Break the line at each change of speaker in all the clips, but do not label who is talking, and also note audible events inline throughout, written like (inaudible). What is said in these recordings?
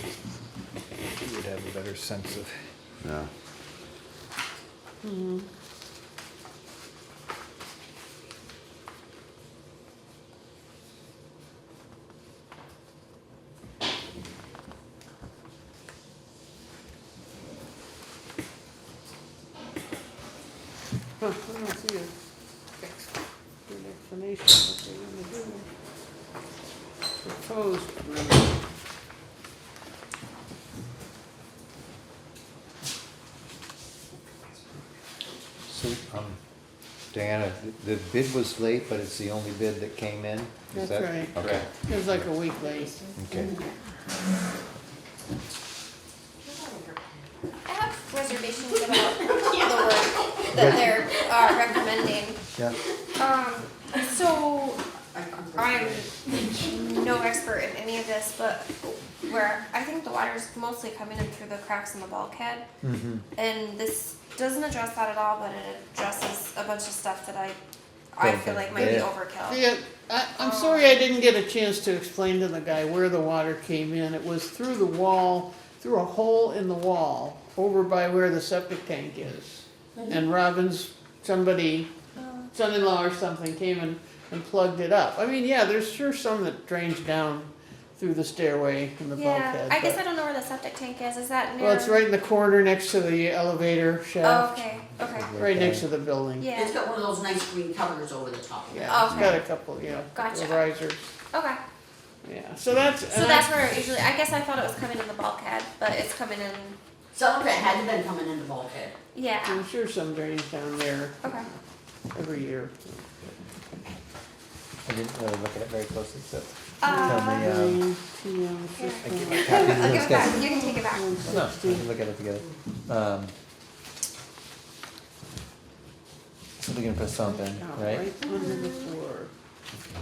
You would have a better sense of,
yeah.
Huh, I don't see a ex- an explanation of what they want to do. Proposed. remedy.
So, um, Diana, the the bid was late, but it's the only bid that came in? Is
That's
that
right. Mm-hmm.
correct?
It was like a week late.
Okay.
I have reservations about the work that they're uh, recommending.
Yeah,
Um, so I'm no expert in any of this, but where I think the water's mostly coming in through the cracks in the bulkhead.
Mm-hmm.
And this doesn't address that at all, but it addresses a bunch of stuff that I, I feel like might be
Yeah.
overkill.
Yeah, I, I'm sorry I didn't get a chance to explain to the guy where the water came in. It was through the wall, through a hole in the wall, over by where the septic tank is. And Robin's, somebody,
Um,
son-in-law or something came and, and plugged it up. I mean, yeah, there's sure some that drains down through the stairway and the
Yeah,
bulkhead.
I guess
but-
I don't know where the septic tank is, is that near?
Well, it's right in the corner next to the elevator
Oh,
shaft,
okay, okay,
right next to the building.
yeah.
It's got one of those nice green covers over the top of it.
Yeah, it's
Okay.
got a couple, yeah,
Gotcha.
risers,
Okay,
yeah, so that's.
so
and
that's where it usually, I guess I thought it was coming in the bulkhead, but it's coming in,
Some of it had been coming in the bulkhead.
yeah,
I'm sure some drains down there
okay.
every year.
I didn't really look at it very closely, so. Tell me,
Uh,
Yeah.
Drains, yeah, it's
here.
just
I give
one-
my
(laughs)
copy
I'll
to
give
those guys.
it back, you can take it back.
one
No, we
sixty.
can look at it together. Um, So they're gonna put something,
Out
right?
under the floor.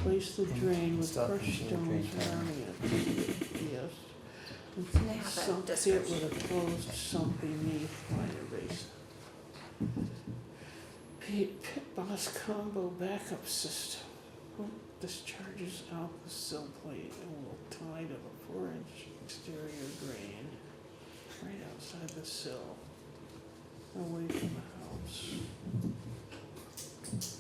Place the drain with
Stop and
crushed
do the drain
stones surrounding it, yes. And
They have that
sunk it
description.
with a closed sump beneath minor basin. Pit, pit boss combo backup system. Pump Discharges out the sill plate and will tie to the four inch exterior drain right outside the sill, away from the house.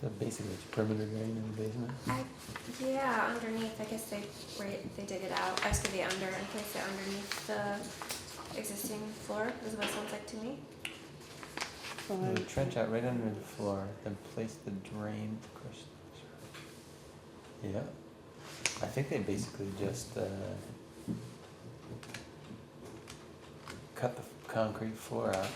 So basically it's perimeter drain in the basement.
I, yeah, underneath, I guess they, right, they dig it out, excavate under and place it underneath the existing floor, is what it sounds like to me.
No,
Five
Trench out right under the floor, then place the drain, crush. Yeah, I think they basically just, uh, cut the concrete floor out.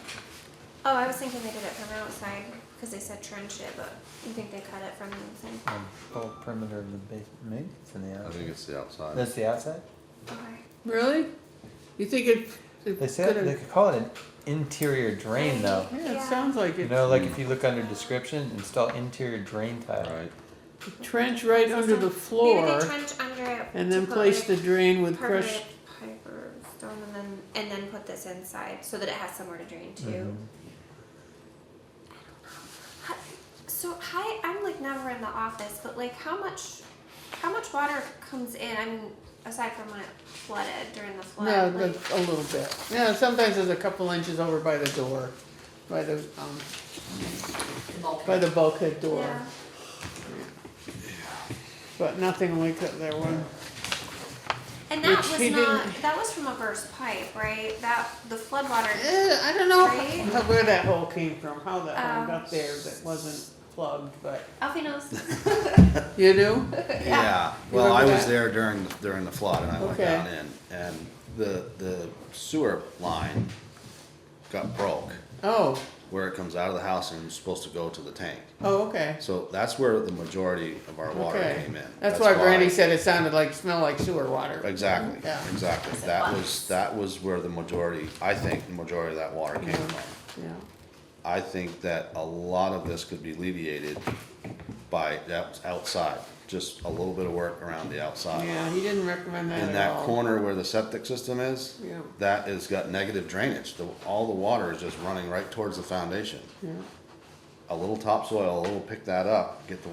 Oh, I was thinking they did it from outside, cause they said trench it, but you think they cut it from the inside?
Um, whole perimeter of the basement, maybe it's in the
I
outside.
think it's the outside.
That's the outside?
Okay.
Really? You think it? it
They said,
could've-
they could call it an interior drain though.
Yeah, it
Yeah.
sounds like
You
it.
know, like if you look under description, install interior drain tile.
Right.
Trench right under the
Maybe
floor
they trench under it.
and
to
then
put
place
like
the drain with crushed,
permanent pipe or stone and then, and then put this inside so that it has somewhere to drain to.
Mm-hmm.
Hi- So hi, I'm like never in the office, but like how much, how much water comes in? I mean, aside from when it flooded during the flood.
no,
like,
but a little bit. Yeah, sometimes there's a couple inches over by the door, by the, um,
The
by
bulkhead.
the bulkhead door,
Yeah.
but nothing like that there one.
And that
Which
was
he
not.
didn't-
That was from a burst pipe, right? That the flood water.
(laughs) Eh, I don't know
Right?
how- where that hole came from, how that hole
Um,
got there that wasn't plugged, but,
Alfie knows.
you do?
Yeah, well, I
remember
was
that?
there during, the- during the flood and I went
Okay.
down in and the, the sewer line got broke
Oh,
where it comes out of the house and is supposed to go to the tank.
oh, okay.
So that's where the majority of our water
Okay.
came in.
That's why Brandy said it sounded like, smelled like sewer water.
Exactly,
Yeah.
exactly. That was, that was where the majority, I think, the majority of that water came
Mhm.
from.
Yeah.
I think that a lot of this could be alleviated by that outside, just a little bit of work around the outside.
Yeah, he didn't recommend that
In
at
that
all.
corner where the septic system is,
Yeah.
that has got negative drainage, the, all the water is just running right towards the foundation.
Yeah.
A little topsoil, a little pick that up, get the